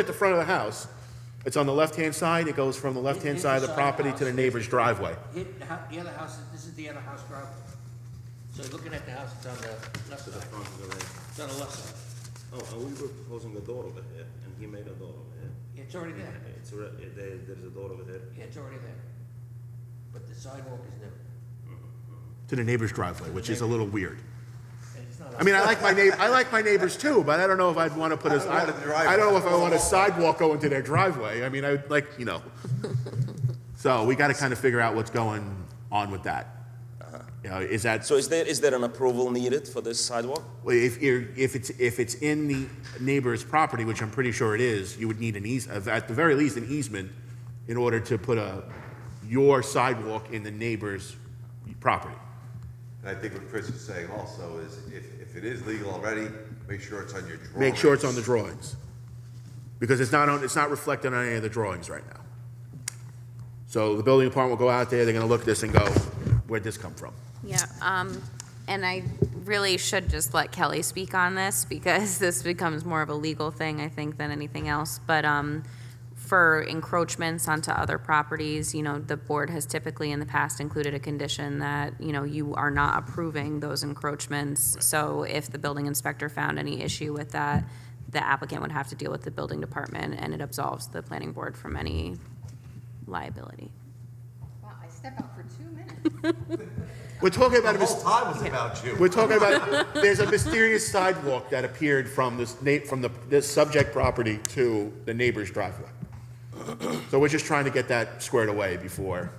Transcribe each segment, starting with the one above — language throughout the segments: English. at the front of the house, it's on the left-hand side, it goes from the left-hand Hit- hit side of the the side of the property to the house. neighbor's driveway. Hit the hou- the other house, this is the other house driveway. So you're looking at the house, it's on the left side, front of the ranch. it's on the left side. Oh, and we were proposing a door over here, and he made a door over here. It's already there, It's, re- uh, there, there's a door over there. Yeah, it's already there. But the sidewalk is new, To the neighbor's driveway, which is a little weird. and it's not. I mean, I like my neighbor, I like my neighbors too, but I don't know if I'd want to put a, I I don't know if I want a sidewalk going to their driveway. I mean, I would like, you know. So we got to kind of figure out what's going on with that. You know, is that, So is there, is there an approval needed for this sidewalk? if you're, if it's, if it's in the neighbor's property, which I'm pretty sure it is, you would need an eas, at the very least, an easement in order to put a, your sidewalk in the neighbor's property. And I think what Chris is saying also is if, if it is legal already, make sure it's on your drawings. Make sure it's on the drawings. Because it's not on, it's not reflected on any of the drawings right now. So the building department will go out there, they're gonna look at this and go, where'd this come from? Yeah, um, and I really should just let Kelly speak on this because this becomes more of a legal thing, I think, than anything else. But, um, for encroachments onto other properties, you know, the board has typically in the past included a condition that, you know, you are not approving those encroachments. So if the building inspector found any issue with that, the applicant would have to deal with the building department and it absolves the planning board from any liability. Wow, I step out for two minutes. We're talking about a, mys- time was about you. we're talking about, there's a mysterious sidewalk that appeared from this na, from the, this subject property to the neighbor's driveway. So we're just trying to get that squared away before.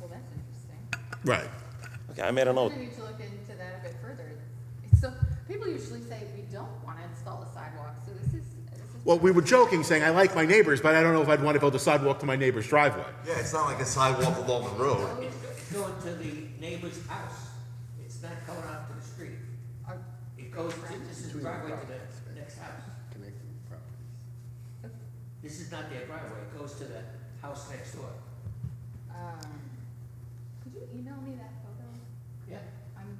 Well, that's interesting. Right. Okay, I made a Oh. note. I need to look into that a bit further. So, people usually say we don't want to install a sidewalk, so this is, this is. Well, we were joking, saying, I like my neighbors, but I don't know if I'd wanna build a sidewalk to my neighbor's driveway. Yeah, it's not like a sidewalk along the road. It's go- It's going to the neighbor's house, it's not going out to the street. Are- It goes, to- this is driveway to the next house. This is not their driveway, it goes to the house next door. um, Could you email me that photo? Yeah. I'm,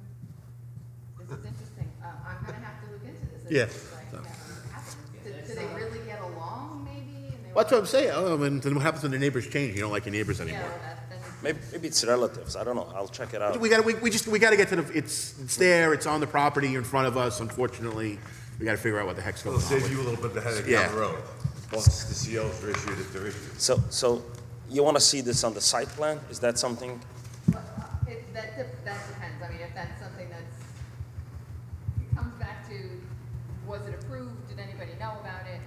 this is interesting. Uh, I'm gonna have to look into this. It's Yeah. just like, never happened. Yeah, Do that's do they not- really get along maybe? and they That's were- what I'm saying. Oh, and then what happens when the neighbors change? You don't like your neighbors Yeah, anymore. that, that's. Maybe, maybe it's relatives. I don't know. I'll check it out. We gotta, we, we just, we gotta get to the, it's, it's there, it's on the property in front of us, unfortunately. We gotta figure out what the heck's going It'll on save with- you a little bit of a headache Yeah. down the road. Once the COs are issued, if they're issued. So, so you want to see this on the site plan? Is that something? Well, It, that, dep- that depends, I mean, if that's something that's, it comes back to, was it approved, did anybody know about it?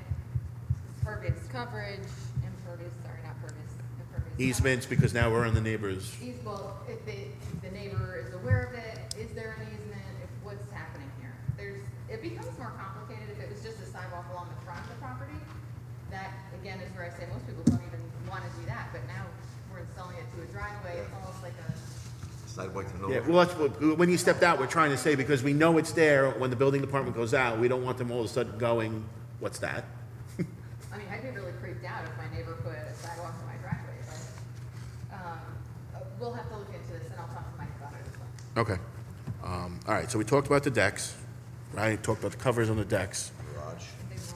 Pervious coverage, impervious, sorry, not pervious, impervious. coverage. Easements, because now we're on the neighbors. Eas- well, if the, if the neighbor is aware of it, is there an easement, if, what's happening here? There's, it becomes more complicated if it was just a sidewalk along the front of the property. That, again, is where I say most people don't even wanna do that, but now we're installing it to a driveway, it's almost like a. Sidewalk to Yeah, nowhere. well, that's what, when you stepped out, we're trying to say, because we know it's there, when the building department goes out, we don't want them all of a sudden going, what's that? I mean, I'd be really creeped out if my neighbor put a sidewalk in my driveway, but, um, uh, we'll have to look into this and I'll talk to Mike about it as well. Okay. Um, all right, so we talked about the decks, right? Talked about the covers on the decks, Garage.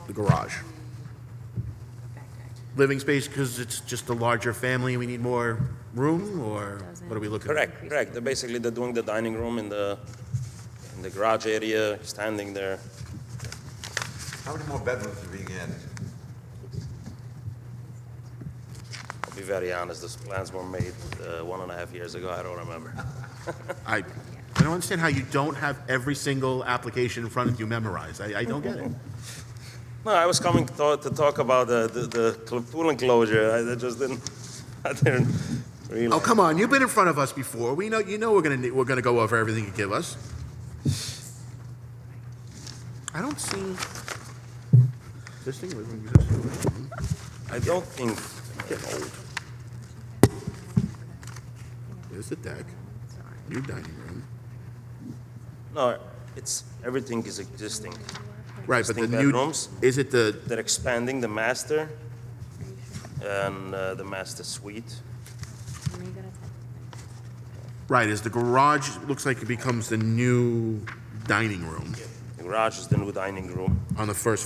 the garage. Back deck. Living space, because it's just a larger family, we need more room, or what are we looking? at? Correct, correct. They're basically, they're doing the dining room in the, in the garage area, standing there. How many more bedrooms are being added? I'll be very honest, those plans were made uh, one and a half years ago. I don't remember. I, I don't understand how you don't have every single application in front of you memorized. I, I don't get it. No, I was coming to, to talk about the, the, the cl- pool enclosure. I, I just didn't, I didn't realize. Oh, come on, you've been in front of us before. We know, you know we're gonna, ne- we're gonna go over everything you give us. I don't see. This thing living exists. I don't think, Get old. There's the deck, new dining room. no, it's, everything is existing. Right, but the Existing new, bedrooms? is it the, They're expanding the master and uh, the master suite. right, is the garage, looks like it becomes the new dining room The garage is the new dining room. on the first